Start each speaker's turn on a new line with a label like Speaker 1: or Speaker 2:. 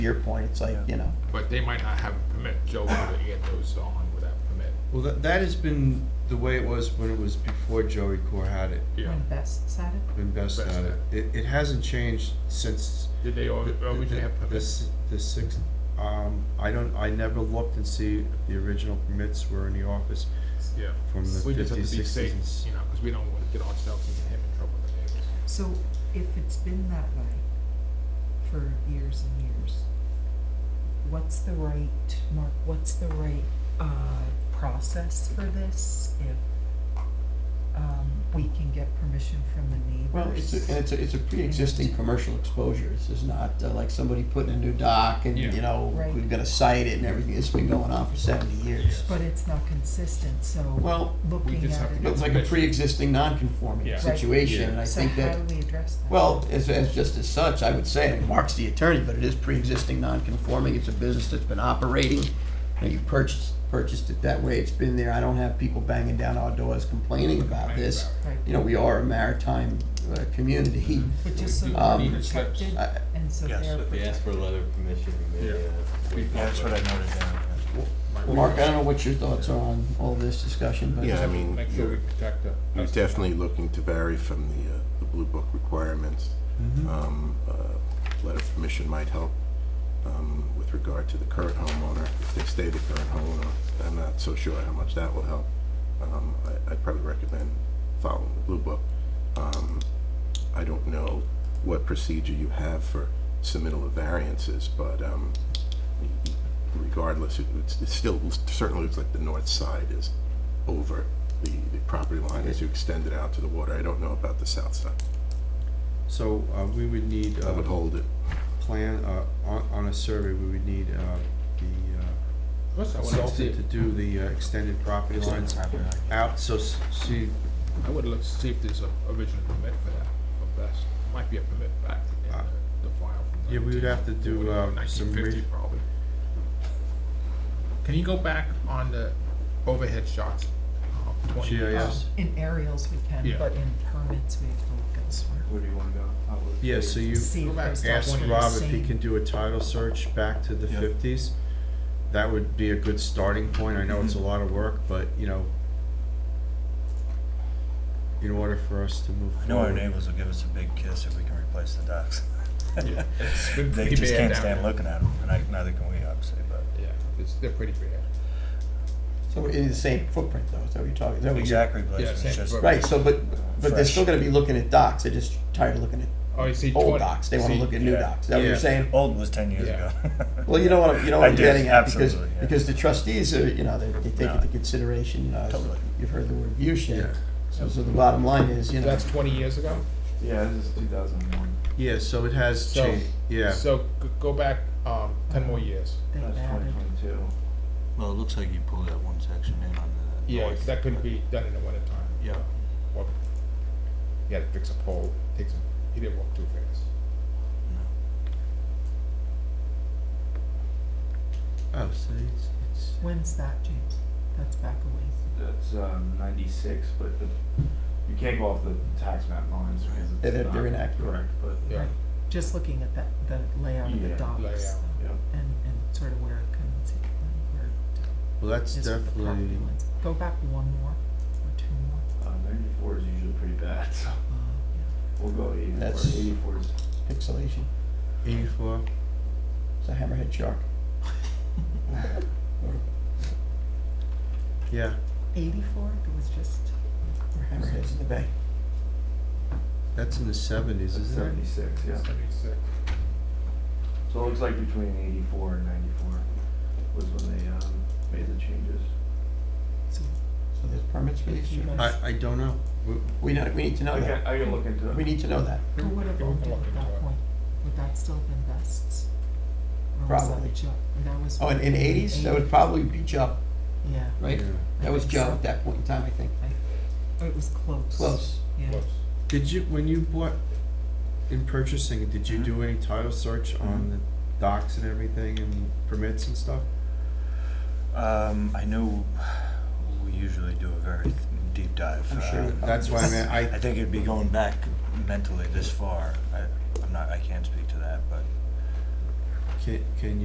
Speaker 1: your point, it's like, you know,
Speaker 2: But they might not have a permit, Joe, would have had those on without permit,
Speaker 3: Well, that, that has been the way it was when it was before Joey Core had it,
Speaker 2: yeah.
Speaker 4: When Best said it.
Speaker 3: when Best
Speaker 2: Best
Speaker 3: had it.
Speaker 2: had Oh,
Speaker 3: It, it hasn't changed since.
Speaker 2: Did they
Speaker 3: the-
Speaker 2: al-
Speaker 3: the-
Speaker 2: originally have
Speaker 3: the-
Speaker 2: permits?
Speaker 3: The sixth, um, I don't, I never looked and see if the original permits were in the office
Speaker 2: Yeah.
Speaker 3: from the
Speaker 2: We just have
Speaker 3: fifties,
Speaker 2: to be
Speaker 3: sixties.
Speaker 2: safe, you know, because we don't want to get ourselves and him in trouble with the neighbors.
Speaker 4: So if it's been that way for years and years, what's the right, Mark, what's the right, uh, process for this? If, um, we can get permission from the neighbors?
Speaker 1: well, it's, a- and it's, a- it's a pre-existing commercial exposure. This is not uh, like somebody putting a new dock and,
Speaker 2: Yeah.
Speaker 1: you know,
Speaker 4: Right.
Speaker 1: we've got to site it and everything. It's been going on for seventy years.
Speaker 4: But it's not consistent, so
Speaker 1: Well,
Speaker 4: looking
Speaker 2: just have
Speaker 4: at
Speaker 2: to
Speaker 4: it.
Speaker 2: get
Speaker 1: it's like a pre-existing non-conforming
Speaker 2: Yeah. Right.
Speaker 1: situation, and I
Speaker 4: So
Speaker 1: think that,
Speaker 4: how do we address that?
Speaker 1: well, as, as just as such, I would say, and Mark's the attorney, but it is pre-existing non-conforming. It's a business that's been operating. You know, you purchased, purchased it that way. It's been there. I don't have people banging down our doors complaining about this.
Speaker 4: Right.
Speaker 1: You know, we are a maritime, uh, community.
Speaker 2: Mm-hmm.
Speaker 4: But just so
Speaker 1: Um,
Speaker 4: they're protected
Speaker 1: I-
Speaker 4: and so they're
Speaker 5: If
Speaker 4: protected.
Speaker 5: they ask for a letter of permission, we may,
Speaker 2: Yeah.
Speaker 5: uh. waive that.
Speaker 6: That's what I noted down.
Speaker 1: Mark, I don't know what your thoughts are on all this discussion, but.
Speaker 7: Yeah, I mean,
Speaker 2: Make sure we
Speaker 7: you're
Speaker 2: protect the.
Speaker 7: you're definitely looking to vary from the, uh, the Blue Book requirements. Um, uh, letter of permission might help, um, with regard to the current homeowner. If they stay the current homeowner, I'm not so sure how much that will help. Um, I, I'd probably recommend following the Blue Book. Um, I don't know what procedure you have for submittal of variances, but, um, regardless, it, it's- it still certainly looks like the north side is over the, the property line as you extend it out to the water. I don't know about the south side.
Speaker 3: So, uh, we would need,
Speaker 7: I would
Speaker 3: uh,
Speaker 7: hold it.
Speaker 3: plan, uh, on, on a survey, we would need, uh, the, uh,
Speaker 2: Plus, I would see,
Speaker 3: consultant to do the uh, extended property lines out, so s- see,
Speaker 2: I would look, to see if there's a original permit for that, for best, might be a permit back in
Speaker 3: Uh,
Speaker 2: the, the file from.
Speaker 3: yeah, we would have to do, uh, some re-
Speaker 2: 1950 probably. Can you go back on the overhead shots? uh, 20?
Speaker 3: GIS.
Speaker 4: In aerials we can,
Speaker 2: Yeah.
Speaker 4: but in permits we have to look elsewhere.
Speaker 6: Where do you wanna go? How would-
Speaker 3: Yeah, so you
Speaker 4: See
Speaker 2: Go
Speaker 4: if
Speaker 2: back.
Speaker 4: there's
Speaker 3: ask
Speaker 2: Stop one of
Speaker 3: Rob
Speaker 4: the
Speaker 3: if he
Speaker 4: same.
Speaker 3: can do a title search back to the
Speaker 6: Yeah.
Speaker 3: fifties. That would be a good starting point. I know it's a lot of work, but, you know, in order for us to move
Speaker 6: I
Speaker 3: forward.
Speaker 6: know our neighbors will give us a big kiss if we can replace the docks.
Speaker 2: Yeah, it's been
Speaker 6: They
Speaker 2: pretty
Speaker 6: just
Speaker 2: bad
Speaker 6: can't
Speaker 2: down
Speaker 6: stand
Speaker 2: there.
Speaker 6: looking at them, and I- neither can we, obviously, but.
Speaker 2: Yeah, it's, they're pretty bad.
Speaker 1: So it's the same footprint though, is that what you're talking, is that what you-
Speaker 6: Exact replacement,
Speaker 2: same
Speaker 6: it's just.
Speaker 2: for-
Speaker 1: Right, so but, but they're still
Speaker 6: Fresh.
Speaker 1: gonna be looking at docks, they're just tired of looking at
Speaker 2: Oh, you see,
Speaker 1: old
Speaker 2: 20
Speaker 1: docks, they wanna
Speaker 2: see,
Speaker 1: look at new
Speaker 6: yeah.
Speaker 1: docks, is that what you're
Speaker 3: Yeah.
Speaker 1: saying?
Speaker 6: Old was ten years
Speaker 2: Yeah.
Speaker 6: ago.
Speaker 1: Well, you know what, I'm- you know
Speaker 6: I
Speaker 1: what I'm
Speaker 6: do,
Speaker 1: getting at, because,
Speaker 6: absolutely, yeah.
Speaker 1: because the trustees are, you know, they, they take
Speaker 6: No.
Speaker 1: into consideration, you know, as-
Speaker 6: Totally.
Speaker 1: you've heard the word view shed.
Speaker 3: Yeah.
Speaker 1: So, so the bottom line is, you know,
Speaker 2: That's twenty years ago?
Speaker 8: Yeah, this is 2001.
Speaker 3: Yeah, so it has
Speaker 2: So-
Speaker 3: changed, yeah.
Speaker 2: So g- go back um, ten more years.
Speaker 4: They've
Speaker 8: That's
Speaker 4: added.
Speaker 8: 2022.
Speaker 5: Well, it looks like you pulled that one section in on the
Speaker 2: Yeah,
Speaker 5: north.
Speaker 2: 'cause that couldn't be done in the winter time.
Speaker 5: Yeah,
Speaker 2: Or he had to fix a pole. Takes him. He didn't walk too fast.
Speaker 3: Oh, so it's, it's,
Speaker 4: When's that, James? That's back a ways.
Speaker 8: That's um, 96, but the, you can't go off the tax map lines because it's
Speaker 1: They're- they're
Speaker 8: not
Speaker 1: inaccurate.
Speaker 8: Correct, but
Speaker 2: Yeah.
Speaker 4: Right. Just looking at that, the layout of the
Speaker 8: Yeah,
Speaker 4: docks
Speaker 2: layout,
Speaker 4: though,
Speaker 8: yeah.
Speaker 4: and, and sort of where it comes in, where it
Speaker 3: well, that's
Speaker 4: is with the property
Speaker 3: definitely,
Speaker 4: lines. Go back one more or two more.
Speaker 8: uh, 94 is usually pretty bad. So
Speaker 4: Uh, yeah.
Speaker 8: we'll go 84.
Speaker 1: That's-
Speaker 8: 84 is
Speaker 1: pixelation,
Speaker 3: eighty-four,
Speaker 1: it's a hammerhead shark. Or,
Speaker 3: yeah,
Speaker 4: Eighty-four, it was just,
Speaker 1: or hammerheads in the bay.
Speaker 3: that's in the seventies,
Speaker 8: that's
Speaker 3: isn't it?
Speaker 8: 76. Yeah.
Speaker 2: Seventy-six.
Speaker 8: So it looks like between 84 and 94 was when they um, made the changes.
Speaker 4: so
Speaker 1: So there's permits for these,
Speaker 4: You
Speaker 1: two?
Speaker 4: guys-
Speaker 3: I, I don't know. We-
Speaker 1: we know, we need to know
Speaker 8: I
Speaker 1: that,
Speaker 8: can, I can look into it.
Speaker 1: we need to know that.
Speaker 4: who would have
Speaker 2: Yeah, we
Speaker 4: owned
Speaker 2: can
Speaker 4: it
Speaker 2: look
Speaker 4: at
Speaker 2: into
Speaker 4: that
Speaker 2: it.
Speaker 4: point? Would that still have been Best's? Or was that
Speaker 1: Probably.
Speaker 4: Ju- That was.
Speaker 1: Oh, in, in eighties, that would probably be Joe,
Speaker 4: Yeah,
Speaker 1: right?
Speaker 3: Yeah.
Speaker 1: That was
Speaker 4: I think
Speaker 1: Joe
Speaker 4: so.
Speaker 1: at that point in time, I think.
Speaker 4: or oh, it was close.
Speaker 1: Close.
Speaker 4: Yeah.
Speaker 2: Close.
Speaker 3: Did you, when you bought, in purchasing, did you do any title search on the docs and everything and permits and stuff?
Speaker 6: Um, I know we usually do a very th- deep dive.
Speaker 1: I'm
Speaker 6: uh,
Speaker 1: sure
Speaker 6: on
Speaker 3: That's why, I
Speaker 6: this.
Speaker 3: mean,
Speaker 6: I
Speaker 3: I,
Speaker 6: think it'd be going back mentally this far. I, I'm not, I can't speak to that, but
Speaker 3: Can, can